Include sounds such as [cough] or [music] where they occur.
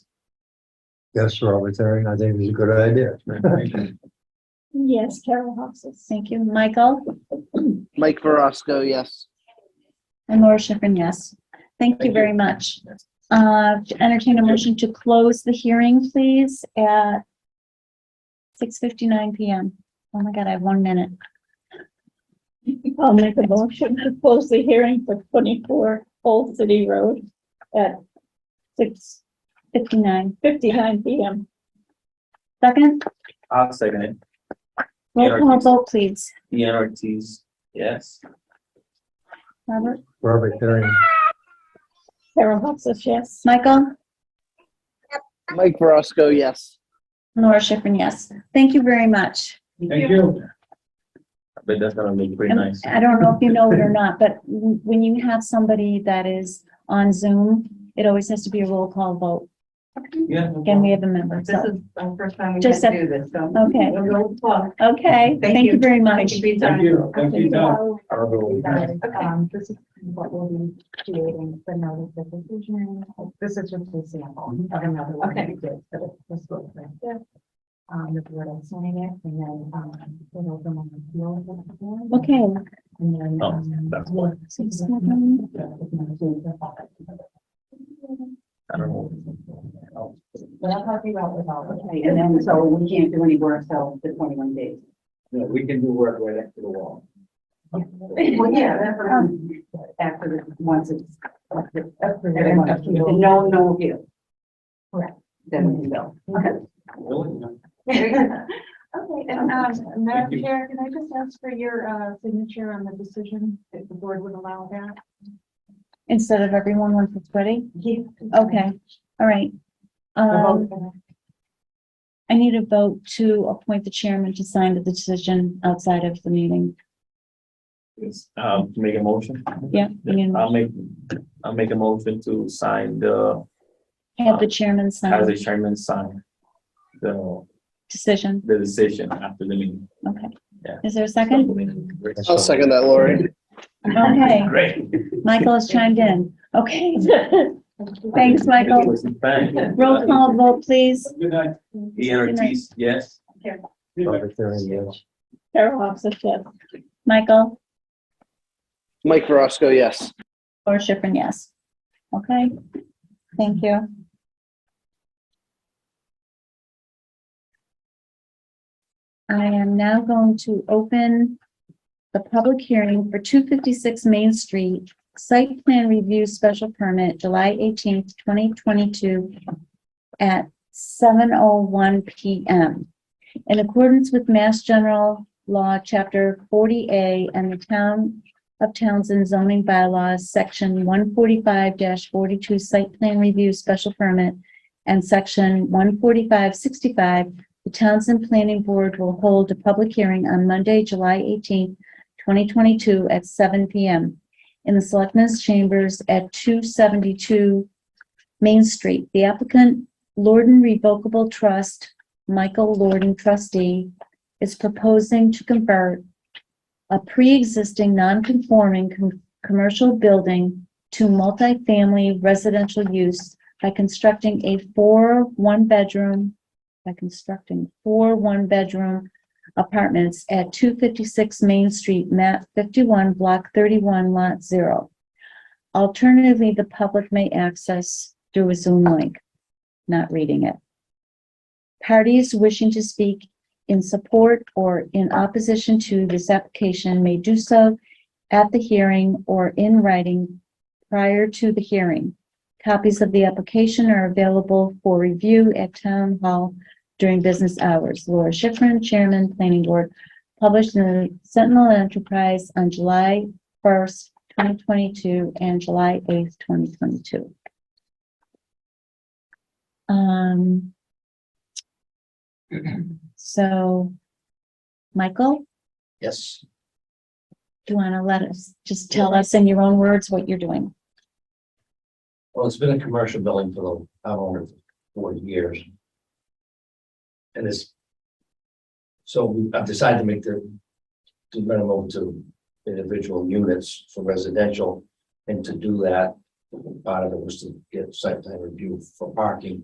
Yes, Robert, there, I think it's a good [laughs] idea. Yes, Carol Hawes. Thank you. Michael? Mike Verosco, yes. And Laura Schiffern, yes. Thank you Thank very much. Uh, entertain a motion to close the hearing, please, at six fifty-nine PM. Oh my God, I have one minute. I'll make a motion to close the hearing for twenty-four Old City Road at six Fifty-nine. fifty-nine PM. Second, I'll second it. roll call vote, please. Ian Ortiz, yes. Robert, Robert, there, Carol Hawes, yes. Michael, Mike Verosco, yes. Laura Schiffern, yes. Thank you very much. Thank you. But that's gonna look pretty And nice. I don't know if you know it or not, but w- when you have somebody that is on Zoom, it always has to be a roll call vote. Yeah. no Again, we have a member, This so, is our first time we Just had to a- do this, so. okay. We're really close. okay, Thank thank you you. very Thank much. you for your problem. time. Probably. Um, This is what we'll be creating the notice of decision. This is just a sample of another one that we did for the- this book. right there. Um, the board will sign it and then, um, we'll open on the floor. with the board. Okay, And then. Oh, um, that's why. Six, seven. But I don't know. I'm talking about without. Okay, and then, so we can't do any work till the twenty-one days. No, we can do work right next to the wall. Well, yeah, that's what I'm, Um, after, the- once it's. No, no view. Correct. Then we can go. Okay, and, um, Madam Chair, can I just ask for your, uh, signature on the decision, if the board would allow that? instead of everyone once it's ready? Yeah. Okay, all right. Um, I need a vote to appoint the chairman to sign the decision outside of the meeting. Um, make a motion? Yeah, we need a I'll make, I'll make a motion to sign the, Have the chairman Uh, as the sign chairman sign the, decision, the decision after the meeting. okay. Yeah. Is there a second? I'll second that, Lori. Okay, Great. Michael has chimed in. Okay, thanks, Michael. Thank Roll call vote, please. Good night. you. Ian Ortiz, yes. Robert, there, yes. Carol Hawes, yes. Michael Mike Verosco, yes. or Schifrin, yes. Okay, thank you. I am now going to open the public hearing for two fifty-six Main Street Site Plan Review Special Permit, July eighteenth, twenty twenty-two at seven oh one P M. In accordance with Mass General Law, Chapter forty A and the Town of Townsend zoning bylaws, section one forty-five forty-two site plan review special permit and section one forty-five sixty-five, the Townsend Planning Board will hold a public hearing on Monday, July eighteenth, twenty twenty-two at seven P M in the Selectmen's Chambers at two seventy-two Main Street. The applicant, Lorden Revocable Trust, Michael Lorden trustee, is proposing to convert a pre-existing non-conforming com- commercial building to multifamily residential use by constructing a four one-bedroom, by constructing four one-bedroom apartments at two fifty-six Main Street, map fifty-one, block thirty-one, lot zero. Alternatively, the public may access through a Zoom link, not reading it. Parties wishing to speak in support or in opposition to this application may do so at the hearing or in writing prior to the hearing. Copies of the application are available for review at Town Hall during business hours. Laura Schifrin, Chairman, Planning Board, published in the Sentinel Enterprise on July 1st, 2022, and July 8th, 2022. Um, so, Michael, Yes. do you want to let us, just tell us in your own words what you're doing? Well, it's been a commercial building for the, I don't know, forty years. And it's. So we- I've decided to make the. To minimum to individual units for residential, and to do that, part of it was to get site plan review for parking.